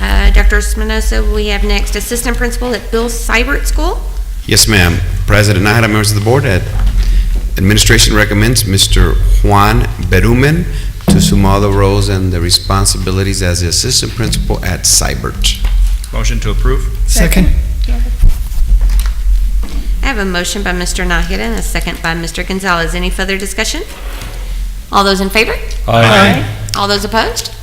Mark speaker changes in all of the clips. Speaker 1: Uh, Dr. Espinoza, we have next Assistant Principal at Bill Seibert School.
Speaker 2: Yes, ma'am. President Nahara, members of the board, ad- administration recommends Mr. Juan Berumen to assume all the roles and the responsibilities as the assistant principal at Cybert.
Speaker 3: Motion to approve?
Speaker 4: Second.
Speaker 1: I have a motion by Mr. Nahara and a second by Mr. Gonzalez. Any further discussion? All those in favor? All those opposed?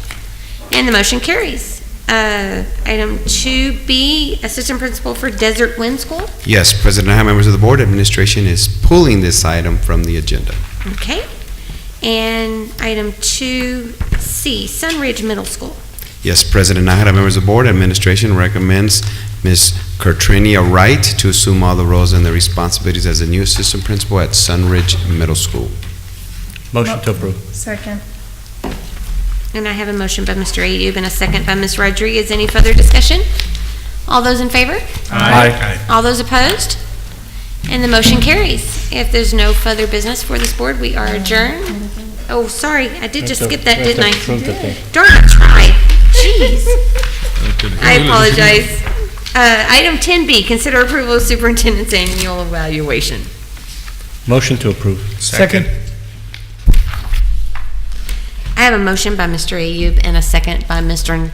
Speaker 1: And the motion carries. Uh, Item 2B, Assistant Principal for Desert Wind School.
Speaker 2: Yes, President Nahara, members of the board, administration is pulling this item from the agenda.
Speaker 1: Okay. And item 2C, Sunridge Middle School.
Speaker 2: Yes, President Nahara, members of the board, administration recommends Ms. Cartrania Wright to assume all the roles and the responsibilities as the new assistant principal at Sunridge Middle School.
Speaker 3: Motion to approve.
Speaker 4: Second.
Speaker 1: And I have a motion by Mr. Ayub and a second by Ms. Rodriguez. Any further discussion? All those in favor?
Speaker 3: Aye.
Speaker 1: All those opposed? And the motion carries. If there's no further business for this board, we are adjourned. Oh, sorry, I did just skip that, didn't I? Darn, I tried. Jeez. I apologize. Uh, Item 10B, consider approval of superintendent's annual evaluation.
Speaker 5: Motion to approve.
Speaker 3: Second.
Speaker 1: I have a motion by Mr. Ayub and a second by Mr.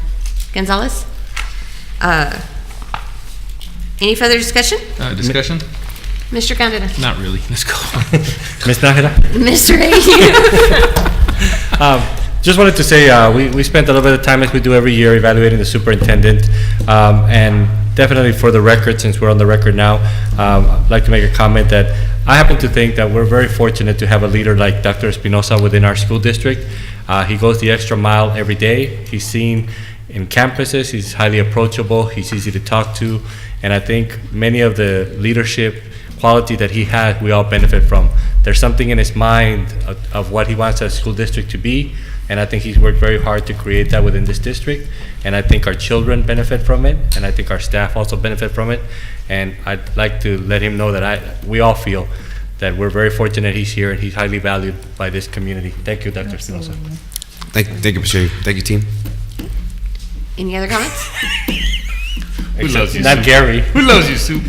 Speaker 1: Gonzalez. Uh, Any further discussion?
Speaker 6: Uh, discussion?
Speaker 1: Mr. Gondeta?
Speaker 6: Not really. Let's go.
Speaker 5: Ms. Nájera?
Speaker 1: Mr. Ayub?
Speaker 5: Um, Just wanted to say, uh, we we spent a little bit of time, like we do every year, evaluating the superintendent, Um, and definitely for the record, since we're on the record now, um, I'd like to make a comment that I happen to think that we're very fortunate to have a leader like Dr. Espinosa within our school district. Uh, He goes the extra mile every day. He's seen in campuses, he's highly approachable, he's easy to talk to, and I think many of the leadership quality that he had, we all benefit from. There's something in his mind of, of what he wants our school district to be, and I think he's worked very hard to create that within this district. And I think our children benefit from it, and I think our staff also benefit from it. And I'd like to let him know that I, we all feel that we're very fortunate he's here and he's highly valued by this community. Thank you, Dr. Espinosa.
Speaker 2: Thank thank you, Mr. Ayub. Thank you, team.
Speaker 1: Any other comments?
Speaker 6: loves you,
Speaker 5: Not
Speaker 6: Sue?
Speaker 5: Gary.
Speaker 6: Who loves you, Sue?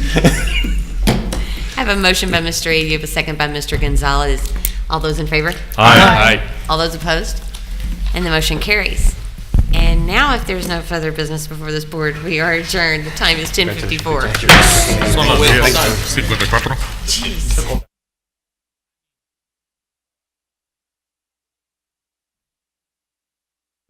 Speaker 1: I have a motion by Mr. Ayub, a second by Mr. Gonzalez. All those in favor?
Speaker 5: Aye.
Speaker 1: All those opposed? And the motion carries. And now, if there's no further business before this board, we are adjourned. The time is 10:54.
Speaker 3: Son las 10, 54.